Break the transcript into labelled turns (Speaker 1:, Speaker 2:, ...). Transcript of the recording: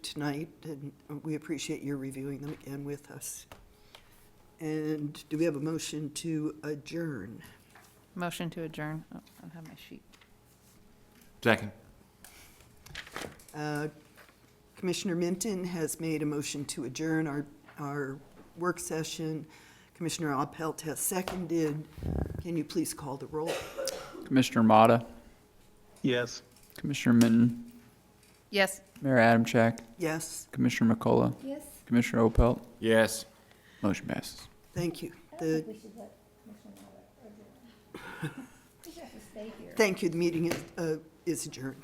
Speaker 1: tonight, and we appreciate your reviewing them again with us. And do we have a motion to adjourn?
Speaker 2: Motion to adjourn. Oh, I don't have my sheet.
Speaker 3: Second.
Speaker 1: Uh, Commissioner Minton has made a motion to adjourn our, our work session. Commissioner Opelt has seconded. Can you please call the roll?
Speaker 4: Commissioner Motta,
Speaker 5: Yes.
Speaker 4: Commissioner Minton,
Speaker 2: Yes.
Speaker 4: Mayor Adamchak,
Speaker 1: Yes,
Speaker 4: Commissioner McCullough,
Speaker 6: Yes,
Speaker 4: Commissioner Opelt,
Speaker 3: Yes.
Speaker 4: motion passes.
Speaker 1: thank you.
Speaker 6: I don't
Speaker 1: The,
Speaker 6: think we should let Commissioner Mata, or do we? We should have to stay here.
Speaker 1: thank you, the meeting is, uh, is adjourned.